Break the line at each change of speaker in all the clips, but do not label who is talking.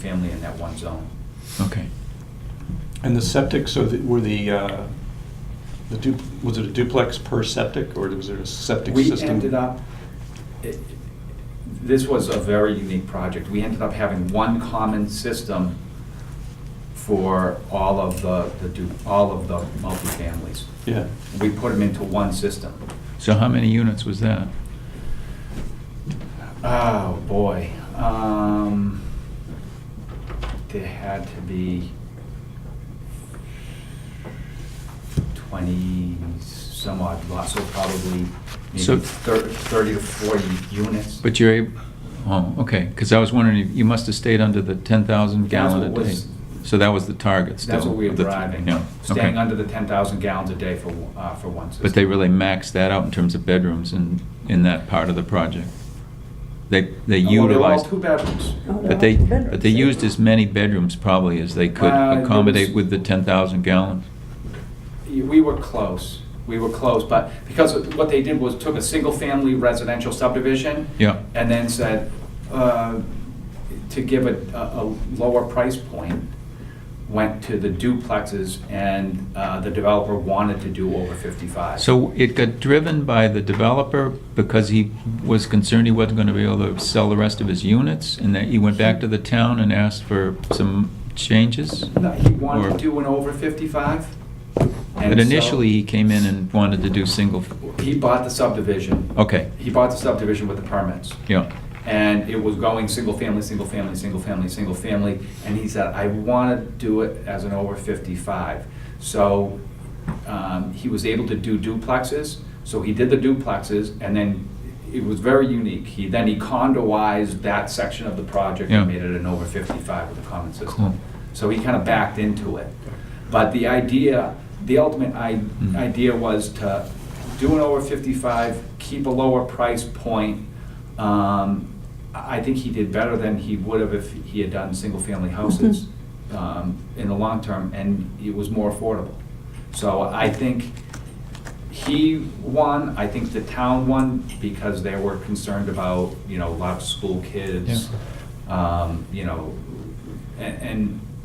in that one zone.
Okay.
And the septic, so the- were the, uh, the du, was it a duplex per septic, or was there a septic
We
system?
ended up, it- this was a very unique project. We ended up having one common system for all of the, the du- all of the multifamilies.
Yeah,
We put them into one system.
So how many units was that?
Oh, boy. Um, There had to be 20 some odd lots, so probably
So-
maybe thir- 30 to 40 units.
But you're able, oh, okay, because I was wondering, you- you must have stayed under the 10,000
That's
gallon a
what
day.
was-
So that was the target still?
That's what we were
of the-
driving,
Yeah,
staying
okay.
under the 10,000 gallons a day for, uh, for one system.
But they really maxed that out in terms of bedrooms in, in that part of the project? They, they
Well, they were Oh, all
utilized,
two bedrooms.
but they, but they used as many bedrooms probably as they could
Uh, there
accommodate
was-
with the 10,000 gallons?
We were close, we were close, but because what they did was took a single-family residential subdivision.
Yeah.
And then said, uh, to give a, a a lower price point, went to the duplexes, and uh, the developer wanted to do over 55.
So it got driven by the developer because he was concerned he wasn't gonna be able to sell the rest of his units? And that he went back to the town and asked for some changes?
No, He wanted
Or-
to do an over 55. and
But
so
initially, he came in and wanted to do single,
He bought the subdivision.
okay,
He bought the subdivision with the permits.
yeah,
and it was going single family, single family, single family, single family, and he said, I want to do it as an over 55. So um, he was able to do duplexes, so he did the duplexes, and then it was very unique. He, then he condoized that section of the project
Yeah.
and made it an over 55 with a common
Cool.
system. So he kind of backed into it. But the idea, the ultimate i-
Mm.
idea was to do an over 55, keep a lower price point. Um, I I think he did better than he would have if he had done single-family houses um, in the long term, and it was more affordable. So I think he won, I think the town won, because they were concerned about, you know, a lot of school kids, um, you know, and, and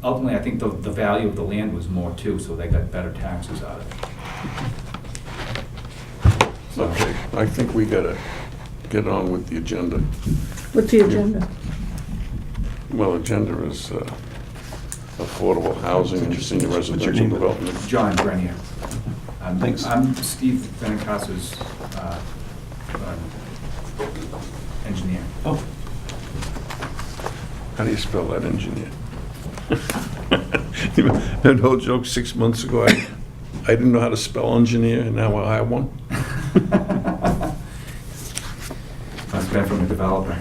ultimately, I think the, the value of the land was more too, so they got better taxes out of it. So,
Okay, I think we gotta get on with the agenda.
What's the agenda?
Well, agenda is uh, affordable housing and senior residential development.
John Grenier. I'm-
Thanks.
I'm Steve Benicasa's, uh, um, engineer.
oh,
How do you spell that, engineer? That whole joke six months ago, I I didn't know how to spell engineer, and now I have one.
Must have been from a developer.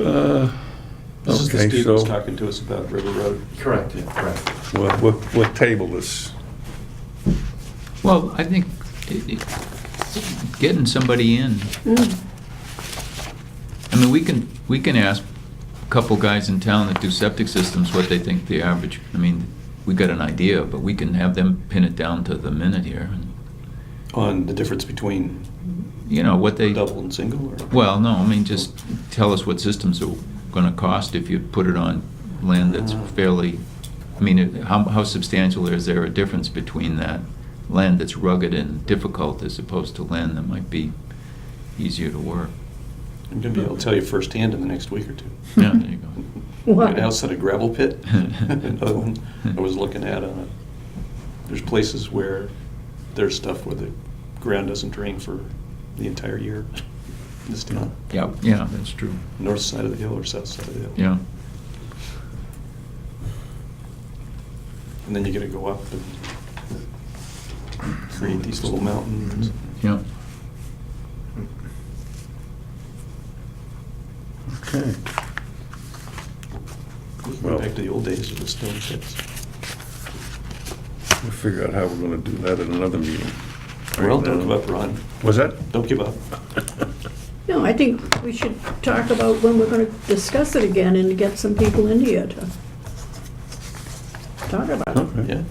Uh,
this is the
okay,
Steve that's
so-
talking to us about River Road.
Correct, correct.
We'll- We'll we'll table this.
well, I think it- it- getting somebody in,
Mm.
I mean, we can, we can ask a couple guys in town that do septic systems what they think the average, I mean, we got an idea, but we can have them pin it down to the minute here, and,
On the difference between
you know, what they.
double and single, or?
Well, no, I mean, just tell us what systems are gonna cost if you put it on land that's fairly, I mean, it- how, how substantial is there a difference between that land that's rugged and difficult as opposed to land that might be easier to work?
I'm gonna be able to tell you firsthand in the next week or two.
Yeah, there you go.
An house at a gravel pit, another one I was looking at, uh, there's places where there's stuff where the ground doesn't drain for the entire year. uh, in This town,
Yeah, yeah, that's true,
north side of the hill or south side of the hill.
yeah.
And then you gotta go up and create these little mountains.
Yeah.
Okay.
Going back to the old days of the stone pits.
We'll figure out how we're gonna do that at another meeting.
Well, don't give up, Ron.
Was that?
Don't give up.
No, I think we should talk about when we're gonna discuss it again and get some people in here to talk about it.
Okay.
Yeah.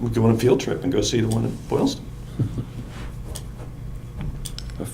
We go on a field trip and go see the one at Boylston.